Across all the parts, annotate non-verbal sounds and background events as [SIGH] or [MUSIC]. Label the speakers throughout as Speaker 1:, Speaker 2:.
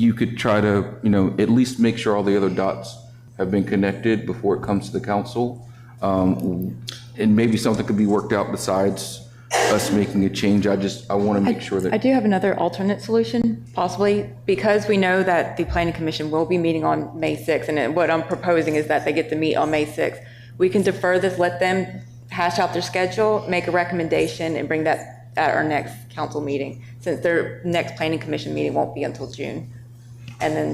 Speaker 1: you could try to, you know, at least make sure all the other dots have been connected before it comes to the council. Um, And maybe something could be worked out besides us making a change. I just, I want to make sure
Speaker 2: I
Speaker 1: that,
Speaker 2: do have another alternate solution, possibly, because we know that the planning commission will be meeting on May 6th, and it- what I'm proposing is that they get to meet on May 6th. We can defer this, let them hash out their schedule, make a recommendation, and bring that at our next council meeting, since their next planning commission meeting won't be until June. And then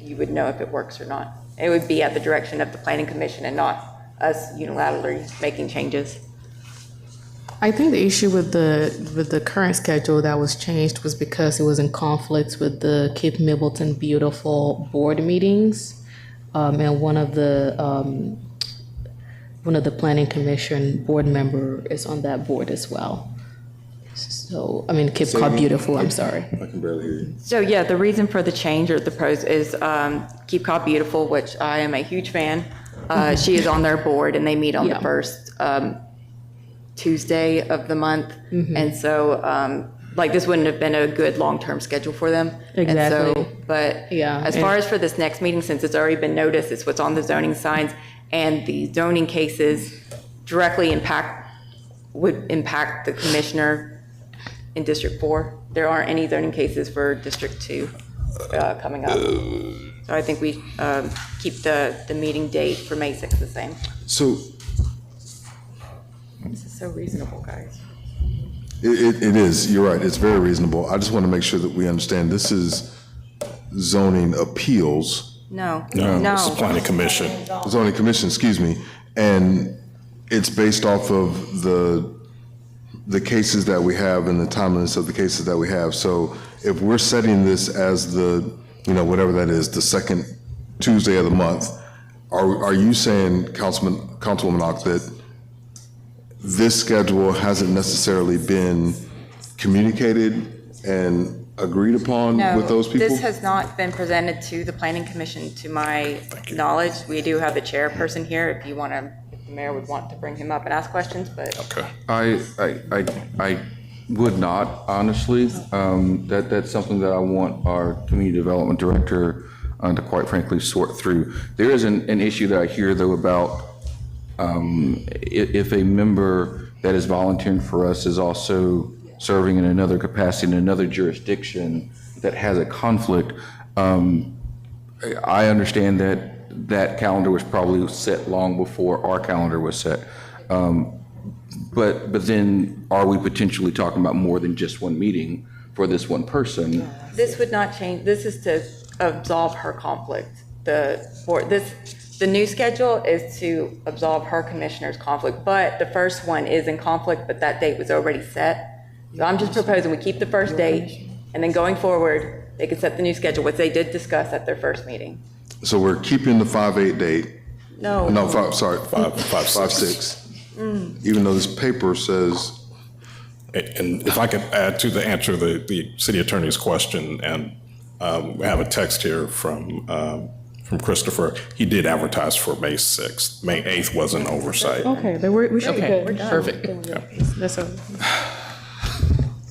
Speaker 2: you would know if it works or not. It would be at the direction of the planning commission and not us unilaterally making changes.
Speaker 3: I think the issue with the with the current schedule that was changed was because it was in conflict with the Cape Middleton Beautiful board meetings, um, and one of the um, one of the planning commission board member is on that board as well. So I mean Cape Cod Beautiful. I'm sorry.
Speaker 2: So yeah, the reason for the change or the pros is um, Keep Cod Beautiful, which I am a huge fan. Uh, She is on their board and they meet on the
Speaker 3: Mm-hmm. Yeah.
Speaker 2: first um, Tuesday of the month.
Speaker 3: Mm-hmm.
Speaker 2: And so, um, like, this wouldn't have been a good long-term schedule for them. And so-
Speaker 3: Exactly.
Speaker 2: But
Speaker 3: Yeah,
Speaker 2: as far
Speaker 3: and-
Speaker 2: as for this next meeting, since it's already been noticed, it's what's on the zoning signs and the zoning cases directly impact, would impact the commissioner in District 4. There aren't any zoning cases for District 2 uh, coming up. So I think we um, keep the, the meeting date for May 6th the same.
Speaker 4: So
Speaker 2: This is so reasonable, guys.
Speaker 4: it, it, it is, you're right, it's very reasonable. I just want to make sure that we understand this is zoning appeals,
Speaker 2: No,
Speaker 5: It's the
Speaker 2: no.
Speaker 5: planning commission.
Speaker 4: zoning commission, excuse me, and it's based off of the, the cases that we have and the timeliness of the cases that we have. So if we're setting this as the, you know, whatever that is, the second Tuesday of the month, are, are you saying, Councilman, Councilwoman Ock, that this schedule hasn't necessarily been communicated and agreed upon
Speaker 2: No,
Speaker 4: with those people?
Speaker 2: This has not been presented to the planning commission, to my knowledge. We do have the chairperson here, if you want to, if the mayor would want to bring him up and ask questions, but
Speaker 5: Okay.
Speaker 1: I, I, I- I would not, honestly. Um, That, that's something that I want our community development director uh, to quite frankly sort through. There is an, an issue that I hear though about um, i- if a member that is volunteering for us is also serving in another capacity in another jurisdiction that has a conflict, um, I I understand that that calendar was probably set long before our calendar was set. Um, But, but then are we potentially talking about more than just one meeting for this one person?
Speaker 2: this would not change, this is to absolve her conflict. The, board. this, the new schedule is to absolve her commissioner's conflict, but the first one is in conflict, but that date was already set. So I'm just proposing we keep the first date, and then going forward, they can set the new schedule, which they did discuss at their first meeting.
Speaker 4: So we're keeping the five-eight date,
Speaker 2: No.
Speaker 4: no, five, sorry,
Speaker 5: Five, five,
Speaker 4: five,
Speaker 5: six.
Speaker 4: six. Even though this paper says,
Speaker 5: A- And if I could add to the answer the, the city attorney's question, and um, we have a text here from, um, from Christopher. He did advertise for May 6th. May 8th was an oversight.
Speaker 3: Okay, then we're, we should be good.
Speaker 1: Perfect.
Speaker 3: That's all.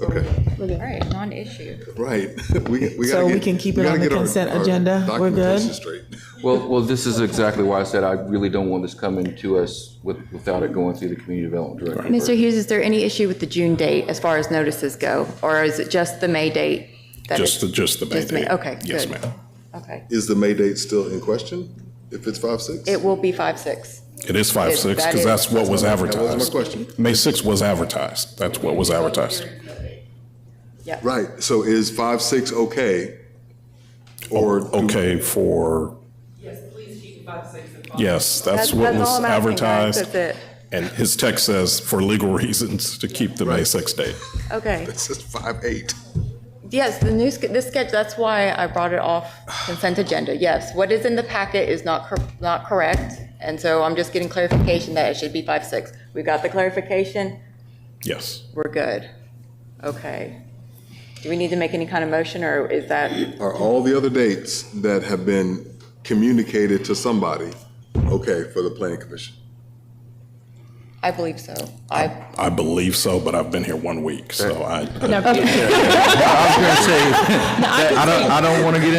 Speaker 4: okay,
Speaker 2: All right, non-issue.
Speaker 4: right, [LAUGHS] we, we gotta
Speaker 6: So we
Speaker 4: get-
Speaker 6: can keep it
Speaker 4: gotta
Speaker 6: on the
Speaker 4: get our-
Speaker 6: consent
Speaker 4: our
Speaker 6: agenda? We're good?
Speaker 4: documentation straight.
Speaker 1: Well, well, this is exactly why I said I really don't want this coming to us with, without it going through the community development director.
Speaker 2: Mr. Hughes, is there any issue with the June date as far as notices go, or is it just the May date? that
Speaker 5: Just the,
Speaker 2: it's-
Speaker 5: just the May
Speaker 2: Just May-
Speaker 5: date.
Speaker 2: okay,
Speaker 5: Yes,
Speaker 2: good.
Speaker 5: ma'am.
Speaker 2: Okay.
Speaker 4: Is the May date still in question, if it's five-six?
Speaker 2: It will be five, six.
Speaker 5: It is five,
Speaker 2: It-
Speaker 5: six,
Speaker 2: that is-
Speaker 5: because that's what was
Speaker 4: That was my
Speaker 5: advertised.
Speaker 4: question.
Speaker 5: May 6th was advertised. That's what was advertised.
Speaker 4: Right, so is five-six okay? [LAUGHS] Or? do-
Speaker 5: Okay for,
Speaker 7: Yes, please keep five, six, and five.
Speaker 5: yes, that's what
Speaker 2: that's all I'm asking,
Speaker 5: was
Speaker 2: guys.
Speaker 5: advertised.
Speaker 2: That's it.
Speaker 5: And his text says for legal reasons to keep the May 6th date.
Speaker 2: Okay.
Speaker 4: It says five-eight.
Speaker 2: Yes, the new, sch- this sketch, that's why I brought it off consent agenda. Yes, what is in the packet is not, cor- not correct. And so I'm just getting clarification that it should be five, six. We got the clarification.
Speaker 5: Yes.
Speaker 2: We're good. Okay. Do we need to make any kind of motion or is that,
Speaker 4: Are all the other dates that have been communicated to somebody okay for the planning commission?
Speaker 2: I believe so. I,
Speaker 5: I believe so, but I've been here one week, so I. I-
Speaker 1: I was going to say, I don't, I don't want to get